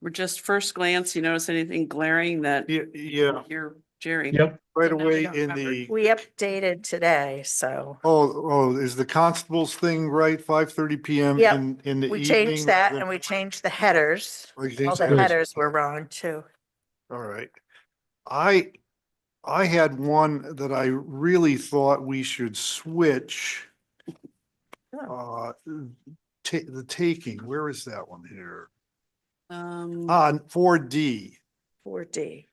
We're just first glance, you notice anything glaring that Yeah, yeah, you're Jerry? Yep, right now we away don't in remember. the, We updated today, so oh, oh, is the constable's thing right? Five thirty PM Yep. in, in the evening? we changed that rather- and we changed the headers. Oh, you All changed the that? headers were wrong too. All right. I, I had one that I really thought we should switch. Oh. Uh, ta- the taking, where is that one here? Um, On four D. Four D.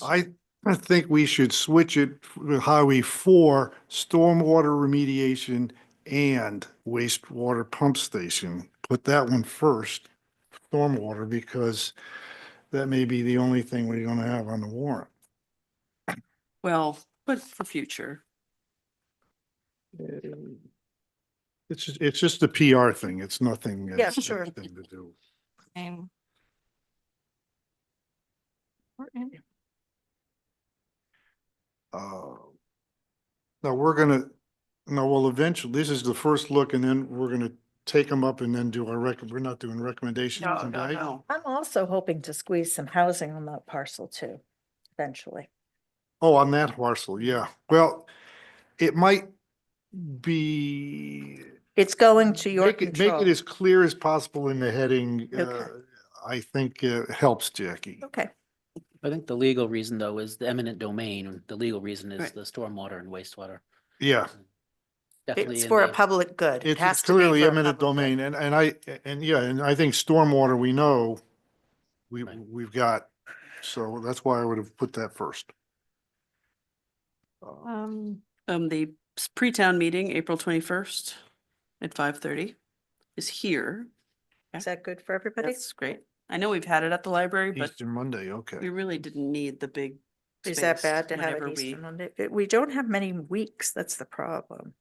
I I think we should switch it to Highway four, stormwater remediation and wastewater pump station. Put that one first, stormwater, because that may be the only thing we're gonna have on the warrant. well, but for future, It's, ju- it's just a PR thing. It's nothing. Yeah, it's sure. nothing to do. Same. Important. Uh, Now, we're gonna, no, well, eventually, this is the first look and then we're gonna take them up and then do our rec, we're not doing recommendations no, no, tonight. no. I'm also hoping to squeeze some housing on that parcel too, eventually. Oh, on that parcel, yeah. Well, it might be. It's going to your make it- control. Make it as clear as possible in the heading, Okay. Oh. uh, I think uh, helps Jackie. Okay, I think the legal reason though is the eminent domain. and The legal reason is Right. the stormwater and wastewater. Yeah, Definitely it's in for a the- public good. It it's has it's to be clearly for a eminent public good. domain and, and I, and yeah, and I think stormwater, we know we, Right. we've got, so that's why I would have put that first. Uh, Um, Um, the s- pre-town meeting, April twenty-first at five thirty is here. Is that good for everybody? That's great. I know we've had it at the library, but Easter Monday, okay. we really didn't need the big. Is that space bad to have whenever it we- Easter Monday? Uh, We don't have many weeks. That's the problem.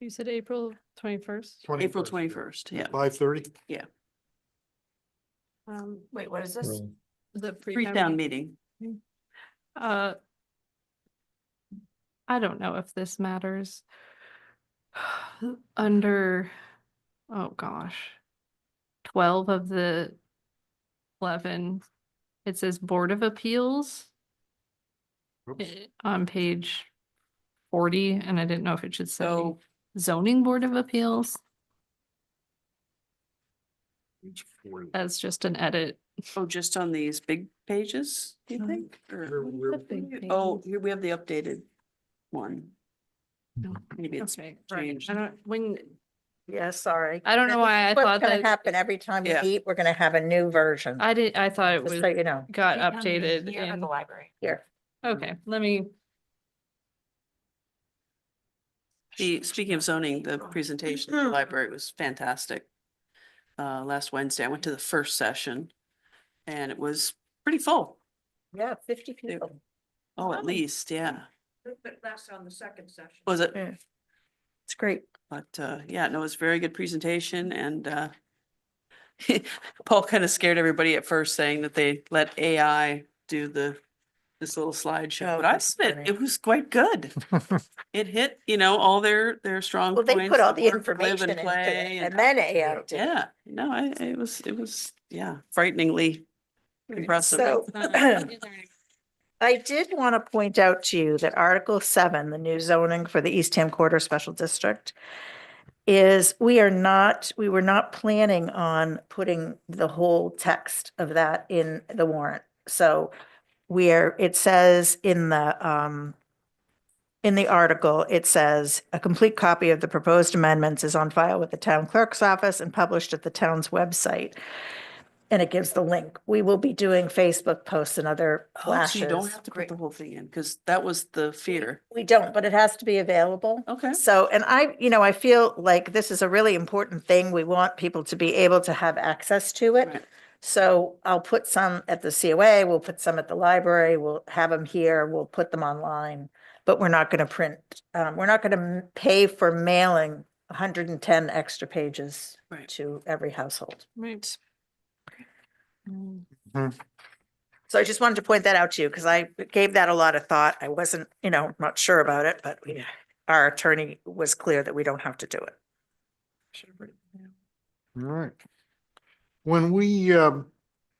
you said April twenty-first? April twenty-first, yeah. Five thirty? Um, wait, what is this? Really. The pre-town Pre-town meeting. meeting. Uh, I don't know if this matters. Under, oh gosh. Twelve of the eleven, it says Board of Appeals. eh, On page forty, and I didn't know if it should say So zoning Board of Appeals. Where, That's just an edit. Oh, just on these big pages, do you Um, think? Or- where, Oh, here we have the updated one. No. Maybe it's, Okay, right. changed. I don't, when, Yeah, sorry. I don't know why I What's thought gonna that- Happen every time you Yeah. eat, we're gonna have a new version. I did, I thought it Just was, so you know, got updated in, library. here. okay, let me, the, speaking of zoning, the presentation at the Mhm. library was fantastic. Uh, last Wednesday, I went to the first session and it was pretty full. Yeah, fifty people. Oh, at Wow. least, yeah. But less on the second session. Was it? Yeah. It's great. But, uh, yeah, no, it was a very good presentation and, uh, Paul kind of scared everybody at first saying that they let AI do the, this little slideshow, Oh, but I that's submit, funny. it was quite good. It hit, you know, all their, their strong Well, points. they put all the work, live and information into play it and then AI did. it. Yeah, no, I, it was, it was, yeah, frighteningly Hmm. impressive. So I did want to point out to you that Article seven, the new zoning for the Eastham Quarter Special District is we are not, we were not planning on putting the whole text of that in the warrant. So we are, it says in the, um, in the article, it says, a complete copy of the proposed amendments is on file with the town clerk's office and published at the town's website. And it gives the link. We will be doing Facebook posts and other Oh, so you don't flashes. have to put the whole thing in, because that was the fear. We don't, but it has to be available. Okay. So, and I, you know, I feel like this is a really important thing. We want people to be able to have access to it. Right. So I'll put some at the COA, we'll put some at the library, we'll have them here, we'll put them online. But we're not going to print, um, we're not going to pay for mailing hundred and ten extra pages Right. to every household. right. Mm. So I just wanted to point that out to you because I gave that a lot of thought. I wasn't, you know, not sure about it, but we- our attorney was clear that we don't have to do it. All right. When we, um,